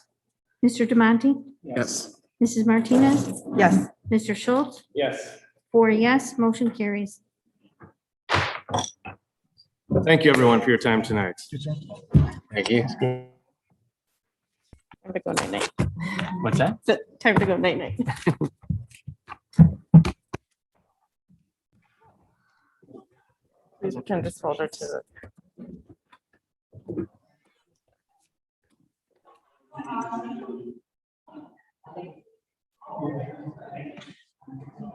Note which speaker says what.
Speaker 1: Mr. Demonte?
Speaker 2: Yes.
Speaker 1: Mrs. Martinez?
Speaker 3: Yes.
Speaker 1: Mr. Schultz?
Speaker 2: Yes.
Speaker 1: Four yes, motion carries.
Speaker 2: Thank you, everyone, for your time tonight. Thank you.
Speaker 3: Time to go night night.
Speaker 4: What's that?
Speaker 3: Time to go night night. Please return this folder to the